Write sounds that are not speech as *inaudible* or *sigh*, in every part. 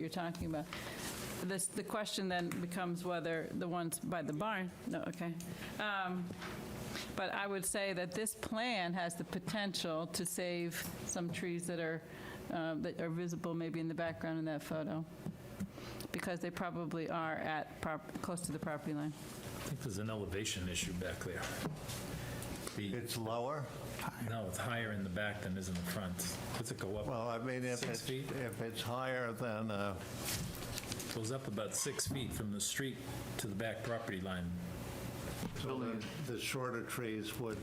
you're talking about. This, the question then becomes whether the ones by the barn, no, okay. Um, But I would say that this plan has the potential to save some trees that are, uh, that are visible maybe in the background in that photo, because they probably are at, prop- close to the property line. I think there's an elevation issue back there. The- It's lower? No, it's higher in the back than is in the front. Does it go up? Well, I mean, if Six it's, feet? if it's higher than, uh, It Goes up about six feet from the street to the back property line. so then the shorter trees would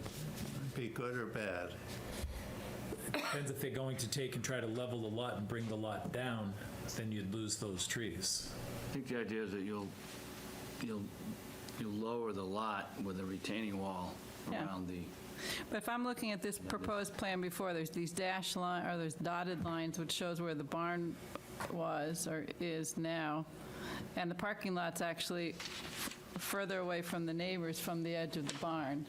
be good or bad? Depends if they're going to take and try to level the lot and bring the lot down, then you'd lose those trees. I think the idea is that you'll, you'll, you lower the lot with a retaining wall Yeah. around the, But if I'm looking at this proposed plan before, there's these dash line, or there's dotted lines, which shows where the barn was or is now, and the parking lot's actually further away from the neighbors from the edge of the barn.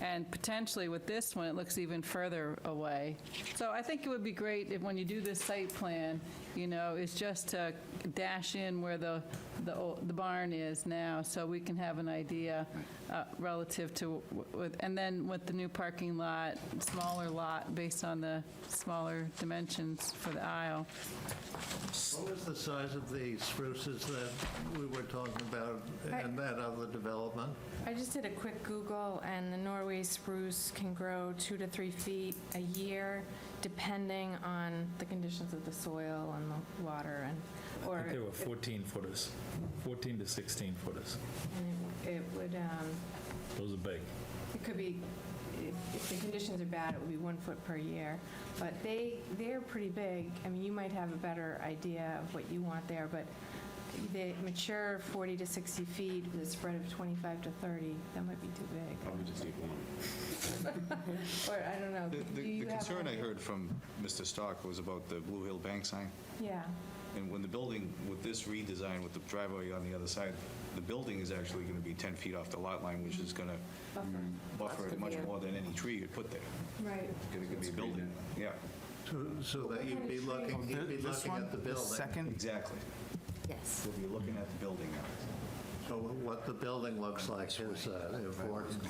And potentially with this one, it looks even further away. So I think it would be great if, when you do this site plan, you know, is just to dash in where the, the ol- the barn is now, so we can have an idea uh, relative to, w- with- and then with the new parking lot, smaller lot, based on the smaller dimensions for the aisle. What was the size of the spruces that we were talking about and that other development? I just did a quick Google, and the Norway spruce can grow two to three feet a year, depending on the conditions of the soil and the water, and, I or think they were 14 footers, 14 to 16 footers. and it- it would, um, Those are big. it could be, if- if the conditions are bad, it would be one foot per year. But they, they're pretty big. I mean, you might have a better idea of what you want there, but they mature 40 to 60 feet with a spread of 25 to 30. That might be too big. Probably just need one. *laughs* Or, I don't know. Do The you have concern I one? heard from Mr. Stock was about the Blue Hill Bank sign. Yeah. And when the building, with this redesign, with the driveway on the other side, the building is actually going to be 10 feet off the lot line, which is going to buffer it much more than any tree you could put there. Right. It's going to be a building. Yeah, So- So that you'd be looking, you'd be This looking one, at the the building. second, exactly. Yes. We'll be looking at the building now. So what the building looks like is uh, important.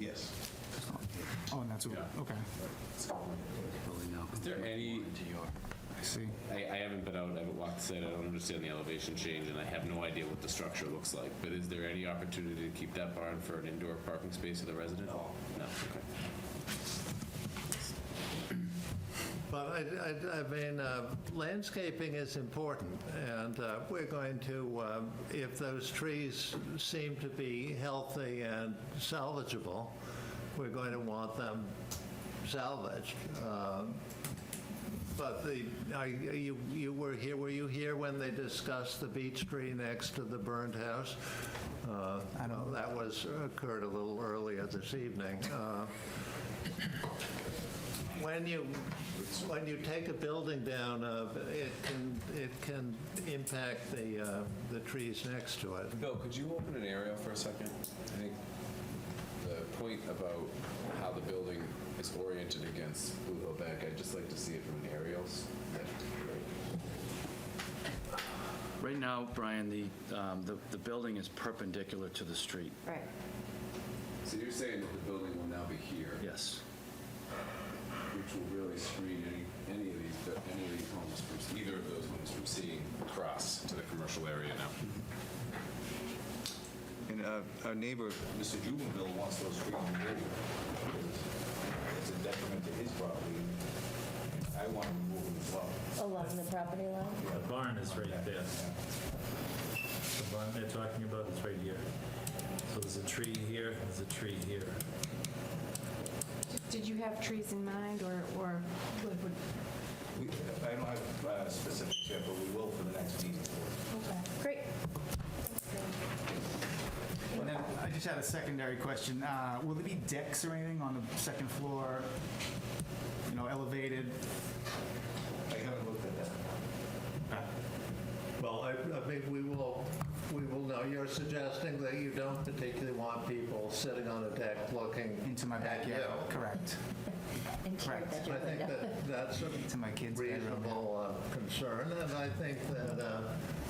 Yes. oh, and that's, a- okay, Is there any, I see. I, I haven't been out, I haven't walked the site, I don't understand the elevation change, and I have no idea what the structure looks like, but is there any opportunity to keep that barn for an indoor parking space of the resident? No. No, okay. But I, I, I mean, uh, landscaping is important, and uh, we're going to, um, if those trees seem to be healthy and salvageable, we're going to want them salvaged. Um, But the, I, you, you were here, were you here when they discussed the beech tree next to the burned house? Uh, That was, occurred a little earlier this evening. Uh, when you, when you take a building down, uh, it can, it can impact the, uh, the trees next to it. Bill, could you open an aerial for a second? I think the point about how the building is oriented against Blue Hill Bank, I'd just like to see it from an aerial. right now, Brian, the, um, the, the building is perpendicular to the street, Right. So you're saying that the building will now be here? yes. which will really screen any, any of these, any of these homes from, either of those homes from seeing across to the commercial area now. And uh, our neighbor, Mr. Jubenville, wants those trees removed. It's a detriment to his property. I want to remove them as well. Along the property line? The barn is right there. The barn they're talking about is right here. So there's a tree here, there's a tree here. Did you have trees in mind, or, or would, would- We- I don't have uh, specifics yet, but we will for the next meeting. Great. And then I just had a secondary question. Uh, Will there be decks or anything on the second floor, you know, elevated? I haven't looked at that. Well, I, I mean, we will we will know. You're suggesting that you don't particularly want people sitting on a deck looking. into my backyard. Yeah. Correct. into your Correct. bedroom I think window. that that's To my a kids' bedroom, yeah. reasonable uh, concern, and I think that uh,